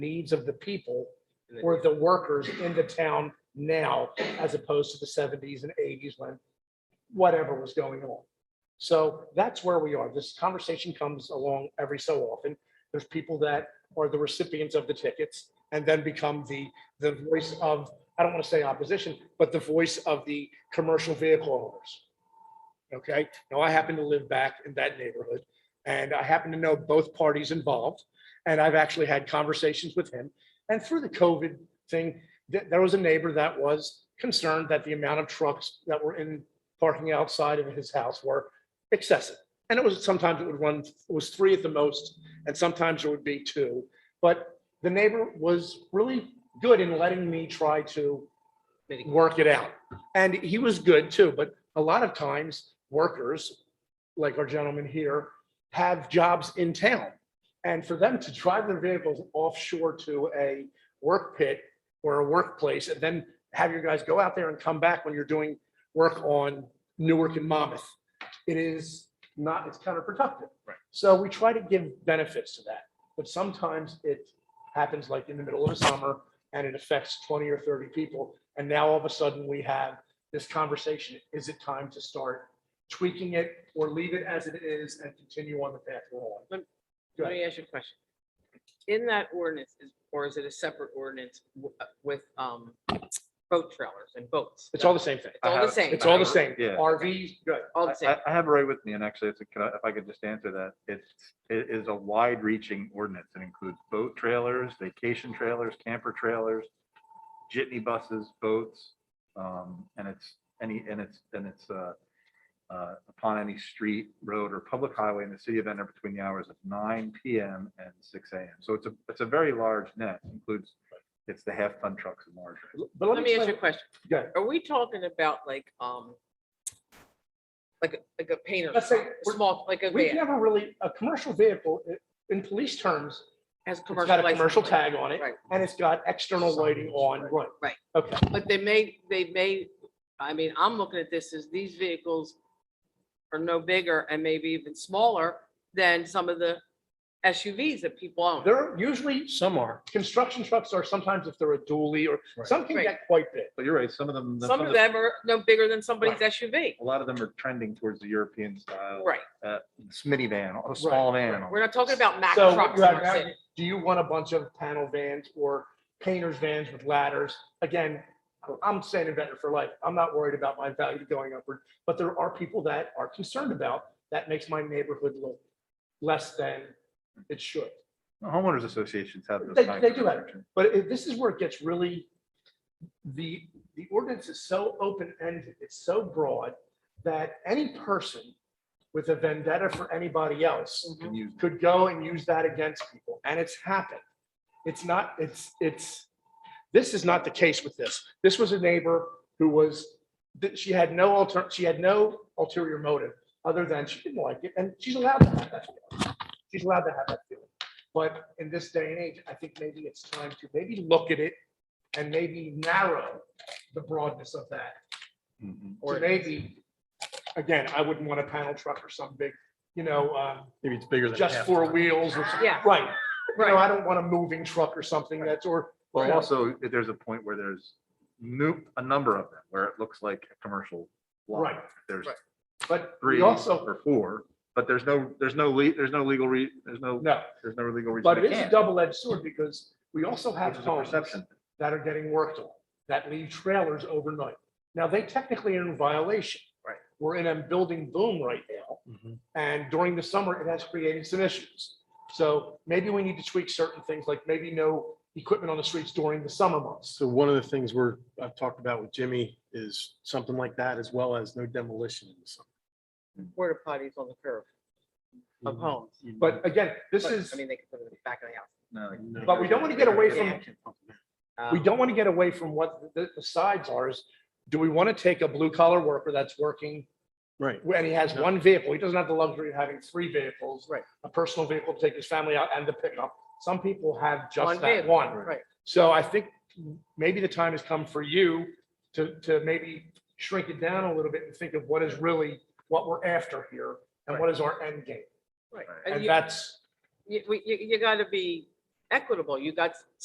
needs of the people or the workers in the town now, as opposed to the seventies and eighties when whatever was going on. So that's where we are. This conversation comes along every so often. There's people that are the recipients of the tickets and then become the, the voice of, I don't want to say opposition, but the voice of the commercial vehicle owners. Okay, now I happen to live back in that neighborhood and I happen to know both parties involved. And I've actually had conversations with him. And through the COVID thing, th- there was a neighbor that was concerned that the amount of trucks that were in parking outside of his house were excessive. And it was, sometimes it would run, it was three at the most, and sometimes it would be two. But the neighbor was really good in letting me try to work it out. And he was good too, but a lot of times workers, like our gentleman here, have jobs in town. And for them to drive their vehicles offshore to a work pit or a workplace and then have your guys go out there and come back when you're doing work on Newark and Monmouth. It is not, it's counterproductive. Right. So we try to give benefits to that, but sometimes it happens like in the middle of the summer and it affects twenty or thirty people. And now all of a sudden we have this conversation. Is it time to start tweaking it or leave it as it is and continue on the path we're on? Go Let me ask you a question. In that ordinance, is or is it a separate ordinance w- with um boat trailers and boats? It's all the same thing. It's all the same. It's all the same. Yeah. RVs, good. All the I, same. I- I have it right with me, and actually, it's a- can I- if I could just answer that, it's, it is a wide-reaching ordinance. It includes boat trailers, vacation trailers, camper trailers, jitney buses, boats, um, and it's any, and it's, and it's, uh, uh, upon any street, road, or public highway in the city of Venter between the hours of nine PM and six AM. So it's a, it's a very large net, includes, it's the half-ton trucks and larger. But Let me ask you a question. Go ahead. Are we talking about like um like a- like a painter, Let's say- small, like a We've van, never really, a commercial vehicle, i- in police terms, has a it's commercial. got a license commercial plate. tag on it Right. and it's got external lighting on, right? Right. Okay, But they may, they may, I mean, I'm looking at this as these vehicles are no bigger and maybe even smaller than some of the SUVs that people own. there are usually. Some are. Construction trucks are sometimes if they're a dually or Right. some can Right. get quite big. But you're right, some of them. Some of them are no bigger than somebody's Right. SUV. A lot of them are trending towards the European style. Right. uh, mini van, a small van. We're not talking about Mack So trucks. you have- in our city. do you want a bunch of panel vans or painters vans with ladders? Again, I'm saying inventor for life. I'm not worried about my value going upward, but there are people that are concerned about, that makes my neighborhood look less than it should. Homeowners associations have those. They- kinds they of do have it. restrictions. But it- this is where it gets really, the, the ordinance is so open-ended, it's so broad that any person with a vendetta for anybody else Can use- could go and use that against people, and it's happened. It's not, it's, it's, this is not the case with this. This was a neighbor who was, that she had no alter, she had no ulterior motive other than she didn't like it, and she's allowed to have that. feeling. She's allowed to have that feeling. But in this day and age, I think maybe it's time to maybe look at it and maybe narrow the broadness of that. Mm-hmm. Mm-hmm. Mhm. Or maybe, again, I wouldn't want a panel truck or some big, you know, uh, Maybe it's bigger than. just half four ton. wheels or something. Yeah. Right. You know, Right. I don't want a moving truck or something that's, or, Well, Yeah. also, if there's a point where there's new, a number of them, where it looks like a commercial. lot. Right. There's Right. but three we also, or four, but there's no, there's no, le- there's no legal re, there's no, no, there's no legal reason. but they it is a can't, double-edged sword because we also have Which is a homes perception. that are getting worked on, that leave trailers overnight. Now, they technically are in violation. Right. We're in a building boom right now. Mhm. And during the summer, it has created some issues. So maybe we need to tweak certain things, like maybe no equipment on the streets during the summer months. So one of the things we're, I've talked about with Jimmy is something like that, as well as no demolition in the summer. Porta potties on the curb of homes. But again, Mm-hmm. this But, is, I mean, they can put it in the back of the house. No, like- No. but we don't want to get away from Um, We don't want to get away from what the, the sides are is, do we want to take a blue collar worker that's working Right. and he has No. one vehicle? He doesn't have the luxury of having three vehicles. Right. A personal vehicle to take his family out and the pickup. Some people have One just that vehicle, one. Right. So I think maybe the time has come for you to, to maybe shrink it down a little bit and think of what is really, what we're after here and what is our end game? Right. Right. And And you, that's, you, we- you, you gotta be equitable. You got